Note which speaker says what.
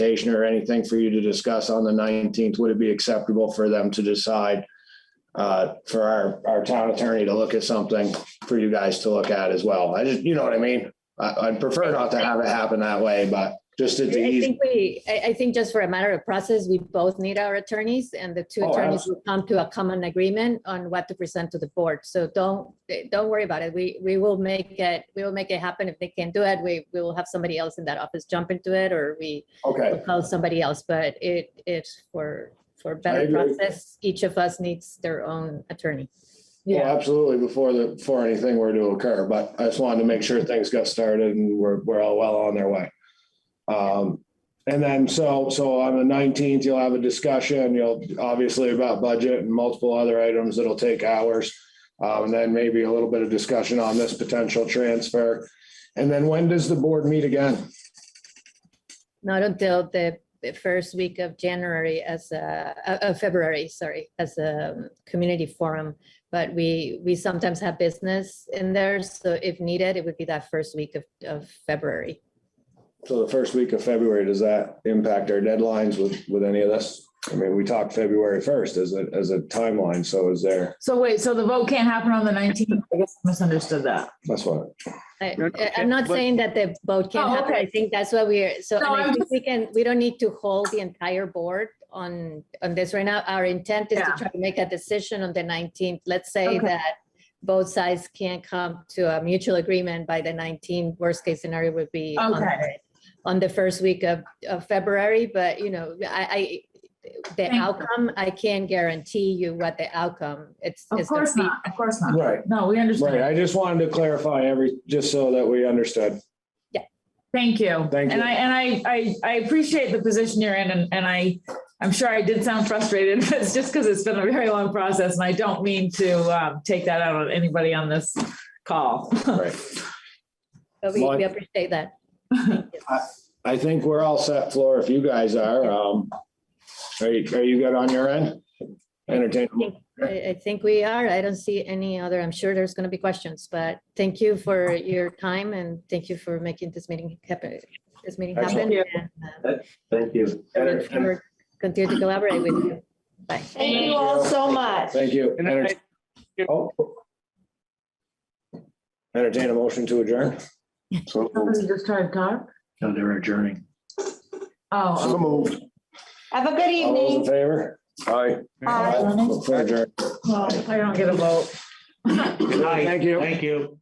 Speaker 1: presentation or anything for you to discuss on the nineteenth, would it be acceptable for them to decide? Uh, for our, our town attorney to look at something for you guys to look at as well. I just, you know what I mean? I, I'd prefer not to have it happen that way, but just to
Speaker 2: I
Speaker 1: the ease.
Speaker 2: think we, I, I think just for a matter of process, we both need our attorneys and the two
Speaker 1: Oh,
Speaker 2: attorneys will come to a common agreement on what to present to the board. So don't, eh, don't worry about it. We, we will make it, we will make it happen. If they can't do it, we, we will have somebody else in that office jump into it or we
Speaker 1: Okay.
Speaker 2: will call somebody else, but it, it's for, for
Speaker 1: I
Speaker 2: better
Speaker 1: agree.
Speaker 2: process. Each of us needs their own attorney.
Speaker 1: Well, absolutely, before the, before anything were to occur, but I just wanted to make sure things got started and we're, we're all well on their way. Um, and then, so, so on the nineteenth, you'll have a discussion, you'll, obviously about budget and multiple other items that'll take hours. Um, and then maybe a little bit of discussion on this potential transfer. And then when does the board meet again?
Speaker 2: Not until the the first week of January as a, uh, uh, February, sorry, as a um, community forum. But we, we sometimes have business in there, so if needed, it would be that first week of, of February.
Speaker 1: So the first week of February, does that impact our deadlines with, with any of this? I mean, we talked February first as a, as a timeline, so is there,
Speaker 3: So wait, so the vote can't happen on the nineteenth? I guess I misunderstood that.
Speaker 1: that's what.
Speaker 2: I,
Speaker 4: No, no,
Speaker 2: I- I'm
Speaker 4: okay,
Speaker 2: not
Speaker 4: but-
Speaker 2: saying that the vote can't
Speaker 3: Oh,
Speaker 2: happen, I
Speaker 3: okay.
Speaker 2: think that's what we are, so and
Speaker 3: No,
Speaker 2: I
Speaker 3: I'm
Speaker 2: think we can, we don't need to hold the entire board on, on this right now. Our intent is to
Speaker 3: Yeah.
Speaker 2: try to make a decision on the 19th. Let's say
Speaker 3: Okay.
Speaker 2: that both sides can't come to a mutual agreement by the 19th. Worst case scenario would be on
Speaker 3: Okay.
Speaker 2: the- on the first week of, of February, but you know, I, I, the
Speaker 3: Thank you.
Speaker 2: outcome, I can't guarantee you what the outcome, it's.
Speaker 3: Of
Speaker 2: it's gonna
Speaker 3: course
Speaker 2: be-
Speaker 3: not, of course not.
Speaker 1: Right,
Speaker 3: No, we
Speaker 1: right.
Speaker 3: understand.
Speaker 1: I just wanted to clarify every, just so that we understood.
Speaker 3: Thank you.
Speaker 1: Thank
Speaker 3: And
Speaker 1: you.
Speaker 3: I, and I, I, I appreciate the position you're in and, and I, I'm sure I did sound frustrated, but it's just because it's been a very long process and I don't mean to, um, take that out on anybody on this call.
Speaker 1: Right.
Speaker 2: But we,
Speaker 1: Well, I-
Speaker 2: we appreciate that.
Speaker 1: I think we're all set, Floor, if you guys are. Um, are you, are you good on your end? Entertain.
Speaker 2: I, I think we are. I don't see any other, I'm sure there's going to be questions, but thank you for your time and thank you for making this meeting happen, this meeting happen.
Speaker 1: Excellent.
Speaker 2: and, uh,
Speaker 1: Thank you.
Speaker 2: I look forward- Continue to collaborate with you. Bye.
Speaker 5: Thank you all so much.
Speaker 1: Thank you.
Speaker 4: And I-
Speaker 1: Oh. Entertain a motion to adjourn.
Speaker 3: Somebody just tried to talk?
Speaker 6: No, they're adjourning.
Speaker 3: Oh.
Speaker 1: moved.
Speaker 5: Have a good
Speaker 1: All those in
Speaker 5: evening.
Speaker 1: favor? Aye.
Speaker 5: Aye.
Speaker 1: For adjourn.
Speaker 3: Well, I don't get a vote.
Speaker 6: Good night.
Speaker 1: Thank you.
Speaker 6: Thank you.